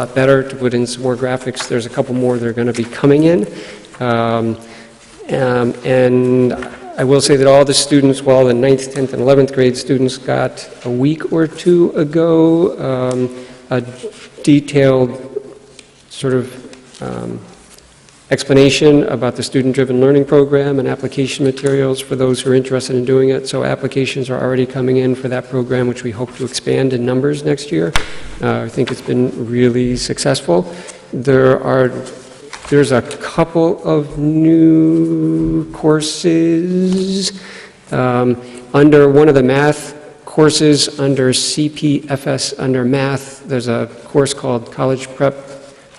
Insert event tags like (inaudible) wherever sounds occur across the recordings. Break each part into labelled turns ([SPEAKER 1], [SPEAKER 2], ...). [SPEAKER 1] lot better, to put in some more graphics. There's a couple more that are going to be coming in. Um, um, And I will say that all the students, well, the ninth, 10th, and 11th grade students got a week or two ago um, a detailed sort of um, explanation about the student-driven learning program and application materials for those who are interested in doing it. So applications are already coming in for that program, which we hope to expand in numbers next year. Uh, I think it's been really successful. There are, there's a couple of new courses um, under one of the math courses, under CPFS, under math, there's a course called College Prep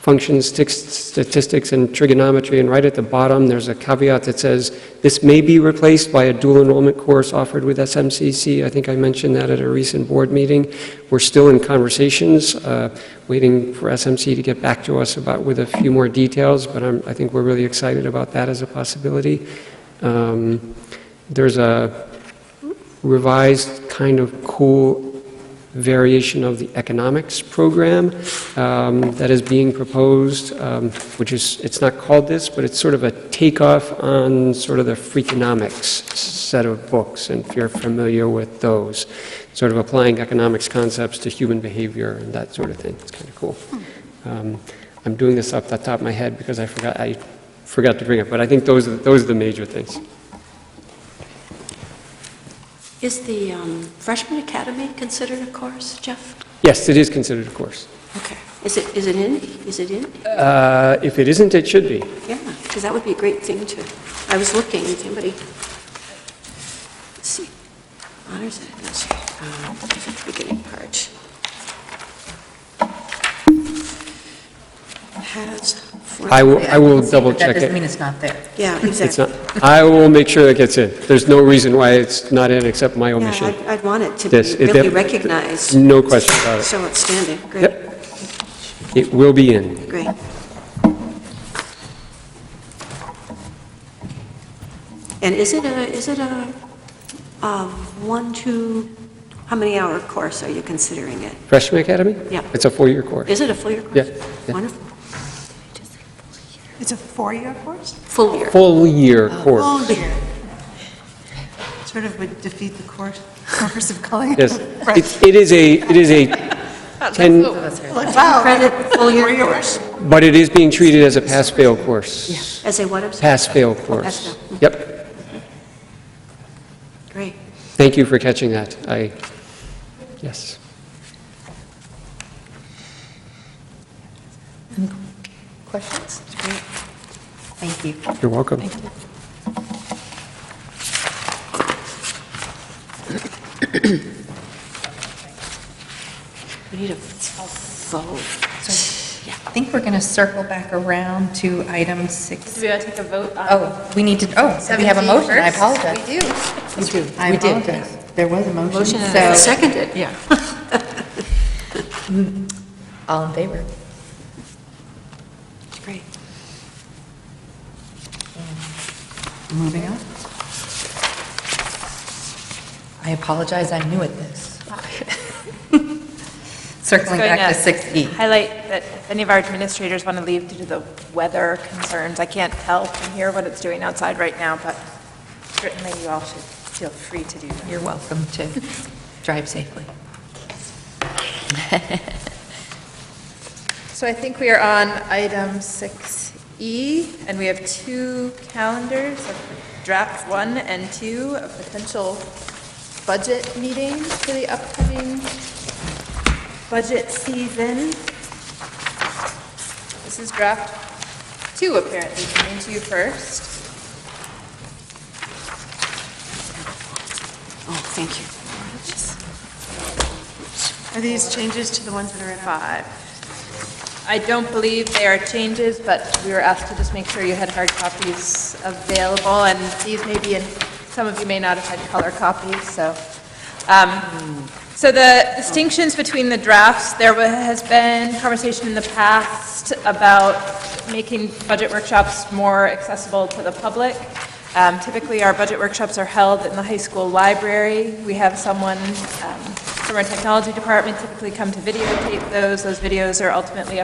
[SPEAKER 1] functions, sti- statistics, and trigonometry, and right at the bottom, there's a caveat that says, "This may be replaced by a dual enrollment course offered with SMCC." I think I mentioned that at a recent board meeting. We're still in conversations, uh, waiting for SMC to get back to us about, with a few more details, but I'm- I think we're really excited about that as a possibility. Um, There's a revised kind of cool variation of the economics program um, that is being proposed, um, which is, it's not called this, but it's sort of a takeoff on sort of the Freakonomics set of books, and if you're familiar with those, sort of applying economics concepts to human behavior and that sort of thing. It's kind of cool. Um, I'm doing this off the top of my head because I forgot, I forgot to bring it, but I think those are, those are the major things.
[SPEAKER 2] Is the um, freshman academy considered a course, Jeff?
[SPEAKER 1] Yes, it is considered a course.
[SPEAKER 2] Okay. Is it, is it in? Is it in?
[SPEAKER 1] Uh, If it isn't, it should be.
[SPEAKER 2] Yeah, because that would be a great thing to, I was looking, if anybody, let's see, honors and Um, administration, beginning part. Has. for-
[SPEAKER 1] I will, I will double
[SPEAKER 3] But that
[SPEAKER 1] check
[SPEAKER 3] doesn't
[SPEAKER 1] it.
[SPEAKER 3] mean it's not there.
[SPEAKER 2] Yeah,
[SPEAKER 1] It's
[SPEAKER 2] exactly.
[SPEAKER 1] not, I will make sure it gets in. There's no reason why it's not in except my
[SPEAKER 2] Yeah,
[SPEAKER 1] omission.
[SPEAKER 2] I'd- I'd want it to
[SPEAKER 1] This-
[SPEAKER 2] be
[SPEAKER 1] it
[SPEAKER 2] really
[SPEAKER 1] def-
[SPEAKER 2] recognized,
[SPEAKER 1] No question about it.
[SPEAKER 2] so outstanding, great.
[SPEAKER 1] Yep. It will be in.
[SPEAKER 2] Great. And is it a, is it a, a one, two, how many hour course are you considering it?
[SPEAKER 1] Freshman Academy?
[SPEAKER 2] Yeah.
[SPEAKER 1] It's a four-year course.
[SPEAKER 2] Is it a full year course?
[SPEAKER 1] Yeah, yeah.
[SPEAKER 2] Wonderful,
[SPEAKER 4] It's a four-year course?
[SPEAKER 2] full year.
[SPEAKER 1] Full-year
[SPEAKER 2] Oh,
[SPEAKER 1] course.
[SPEAKER 4] Four-year. Sort of would defeat the course,
[SPEAKER 2] (laughs)
[SPEAKER 4] purpose of calling it.
[SPEAKER 1] Yes.
[SPEAKER 4] a fresh-
[SPEAKER 1] It it is a, it is
[SPEAKER 2] (laughs)
[SPEAKER 1] a 10,
[SPEAKER 4] Like, wow,
[SPEAKER 2] Credit, (laughs)
[SPEAKER 4] four
[SPEAKER 2] full year
[SPEAKER 4] years.
[SPEAKER 1] but it is being treated as a pass-fail course.
[SPEAKER 2] as a what, I'm sorry?
[SPEAKER 1] Pass-fail course.
[SPEAKER 2] pass-fail.
[SPEAKER 1] Yep.
[SPEAKER 2] Great.
[SPEAKER 1] Thank you for catching that. I, yes.
[SPEAKER 3] Questions? Thank you.
[SPEAKER 1] You're welcome.
[SPEAKER 2] We need a vote.
[SPEAKER 3] I think we're going to circle back around to item six.
[SPEAKER 5] Do we gotta take a vote on
[SPEAKER 3] Oh, we need to, oh, we have a
[SPEAKER 5] 17
[SPEAKER 3] motion, I
[SPEAKER 5] first?
[SPEAKER 3] apologize.
[SPEAKER 5] We do.
[SPEAKER 3] We do. I
[SPEAKER 5] We did.
[SPEAKER 3] apologize. There was a motion.
[SPEAKER 2] Motion
[SPEAKER 3] So-
[SPEAKER 2] and seconded, yeah.
[SPEAKER 3] All in favor?
[SPEAKER 2] Great.
[SPEAKER 3] Moving on. I apologize, I'm new at this. Circling
[SPEAKER 5] Going
[SPEAKER 3] back
[SPEAKER 5] up.
[SPEAKER 3] to E. 6E.
[SPEAKER 5] Highlight that if any of our administrators want to leave due to the weather concerns. I can't tell from here what it's doing outside right now, but certainly you all should feel free to do that.
[SPEAKER 3] You're welcome to (laughs) drive safely. (laughs)
[SPEAKER 5] So I think we are on item 6E, and we have two calendars, of draft one and two of potential budget meetings for the upcoming budget season. This is draft two, apparently, coming to you first.
[SPEAKER 2] Oh, thank you.
[SPEAKER 4] Are these changes to the ones that are in our?
[SPEAKER 5] Five. I don't believe there are changes, but we were asked to just make sure you had hard copies available, and these may be in, some of you may not have had color copies, so. um, So the distinctions between the drafts, there wa- has been conversation in the past about making budget workshops more accessible to the public. Um, Typically, our budget workshops are held in the high school library. We have someone um, from our technology department typically come to videotape those. Those videos are ultimately